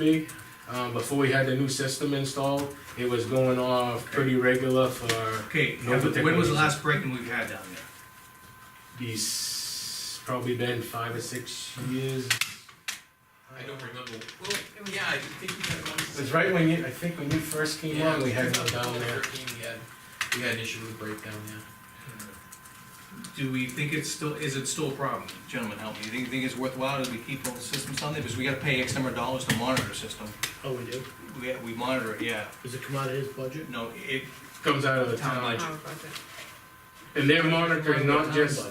be. Um, before we had the new system installed, it was going off pretty regular for Okay, No particular when was the reason. last break-in we've had down there? these, probably been five or six years. I don't remember, well, yeah, I think we had one. It was right when you, I think when you first came Yeah, on, we had two them down thousand there. thirteen, we had, we had an issue with breakdown, yeah. Do we think it's still, is it still a problem? Gentlemen, help me, do you think it's worthwhile that we keep all the systems on there, because we gotta pay X number of dollars to monitor the system, Oh, we do? we, we monitor it, yeah, Does it come out of his budget? no, it, Comes out of the Town town. budget. Our Oh, budget. And they're monitoring not just,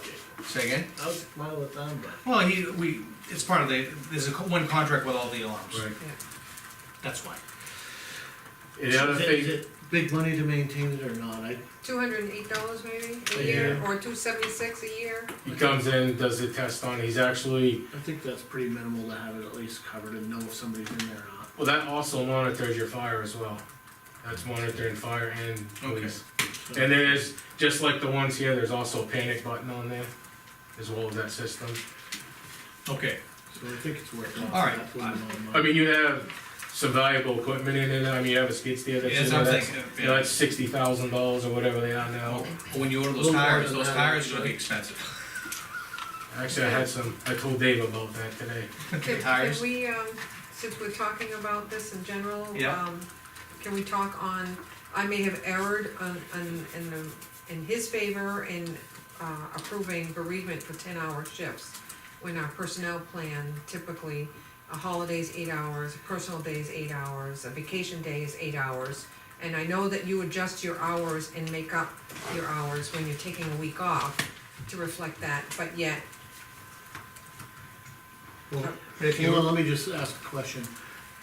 say again? Out of the town budget. Well, he, we, it's part of the, there's a, co- one contract with all the alarms, Right. that's why. and the other Is it- thing. Is it big money to maintain it or not? I, Two hundred and eight dollars maybe A a year, year. or two seventy-six a year. He comes in, does the test on, he's actually, I think that's pretty minimal to have it at least covered and know if somebody's in there or not. well, that also monitors your fire as well. That's monitoring fire and police. So- And there's, just like the ones here, there's also a panic button on there, as well as that system. Okay. So I think it's worth it. All right. That's what I'm on my- I mean, you have some valuable equipment in it, I mean, you have a skid steer that's Yeah, in That's there, what I'm that's, thinking, you know, yeah. that's sixty thousand dollars or whatever they are now. Well, When you order those Little more tires, than those that, tires are gonna actually. be expensive. Actually, I had some, I told Dave about that today. Can, tires. can we, um, since we're talking about this in general, Yeah. um, can we talk on, I may have erred on, on, in the, in his favor in, uh, approving bereavement for ten-hour shifts, when our personnel plan typically, a holiday's eight hours, a personal day's eight hours, a vacation day is eight hours. And I know that you adjust your hours and make up your hours when you're taking a week off to reflect that, but yet, Well, If Hold on, you, let me just ask a question.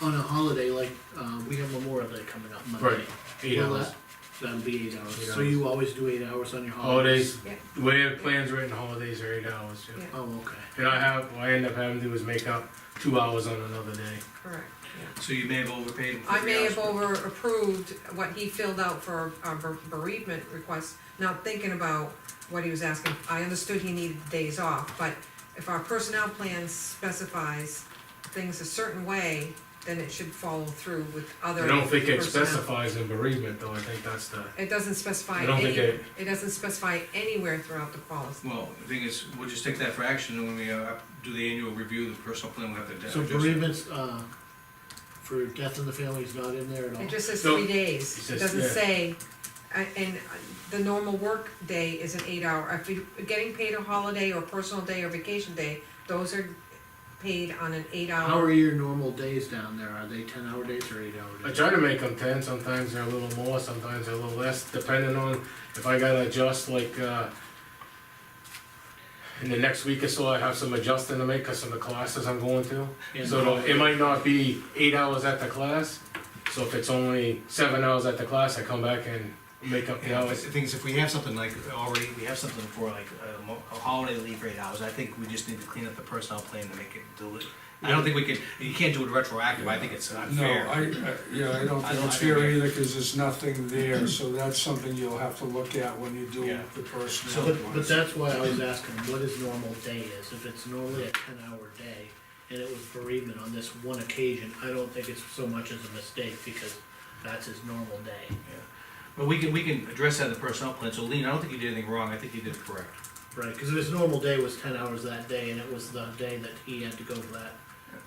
On a holiday, like, uh, we have Memorial Day coming up Monday. Right, Eight Will hours. that- That'll be eight hours. Eight So you always do eight hours on your holidays? Holidays, yeah, the way the plan's written, holidays are eight hours, yeah. Yeah. Oh, okay. And I have, what I end up having to do is make up two hours on another day. correct, yeah. so you may have overpaid him for I three may hours. have over approved what he filled out for a ber- bereavement request, not thinking about what he was asking. I understood he needed days off, but if our personnel plan specifies things a certain way, then it should follow through with other. I don't think it personnel. specifies in bereavement, though, I think that's the, It doesn't specify I don't any, think it doesn't specify anywhere throughout the policy. Well, the thing is, we'll just take that for action, and when we, uh, do the annual review, of the personal plan, we'll have to So adjust it. bereavement's, uh, for death in the family is not in there at all? It just says No. three It days, says- it doesn't yeah. say, I- and uh, the normal work day is an eight hour, if you're getting paid a holiday or personal day or vacation day, those are paid on an eight How hour. are your normal days down there? Are they ten hour days or eight hour I days? try to make them ten, sometimes they're a little more, sometimes they're a little less, depending on if I gotta adjust, like, uh, in the next week or so, I have some adjusting to make, cause of the classes I'm going to. And So how- it'll- it might not be eight hours at the class, so if it's only seven hours at the class, I come back and make up the Yeah, but hours. the thing is, if we have something like, already, we have something for like a mo- a holiday leave rate hours, I think we just need to clean up the personnel plan to make it deli- I don't think we can, you can't do it retroactive, I think it's No, unfair. I, I- yeah, I I don't think don't- it's I don't fair either. either, because there's nothing there, so that's something you'll have to look at when you do Yeah. the personnel. But, but ones. that's why I was asking what his normal day is. If it's normally a ten hour day and it was bereavement on this one occasion, I don't think it's so much as a mistake because that's his normal day. But we can, we can address that in the personnel plan, so Lean, I don't think you did anything wrong, I think you did it correct. Right, cause if his normal day was ten hours that day and it was the day that he had to go for that,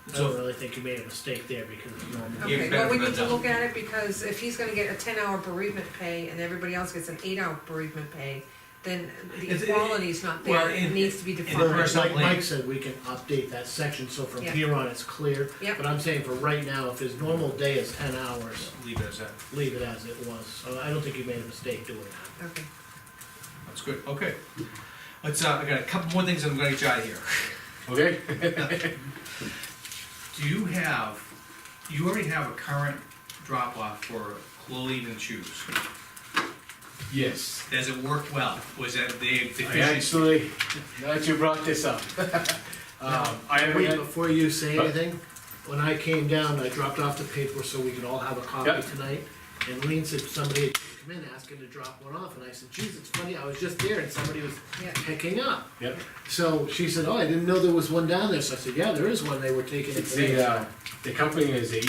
I don't So, really think he made a mistake there because it's normal. Yeah, Okay, better well, we than need to that. look at it, because if he's gonna get a ten hour bereavement pay and everybody else gets an eight hour bereavement pay, then the It's- it- equality's not well, there, it in- needs to be in defined. the personnel Like Mike plan, said, we can update that section, so from Yeah. here on, it's clear. Yep. But I'm saying for right now, if his normal day is ten hours, leave it as that, leave it as it was. So I don't think you made a mistake doing that. Okay, that's good, okay. Let's, uh, I got a couple more things, and I'm gonna get you out of here. Okay? Do you have, you already have a current drop-off for clothing and shoes? Yes. Does it work well? Was that the I deficiency? actually, now that you brought this up, um, I haven't Wait, had- before you say Huh? anything, when I came down, I dropped off the paper so we could all have a copy Yep. tonight. And Lean said somebody had come in asking to drop one off, and I said, geez, it's funny, I was just there and somebody was yeah, picking up. Yep. So she said, oh, I didn't know there was one down there, so I said, yeah, there is one, they were taking it It's today. the, uh, the company is the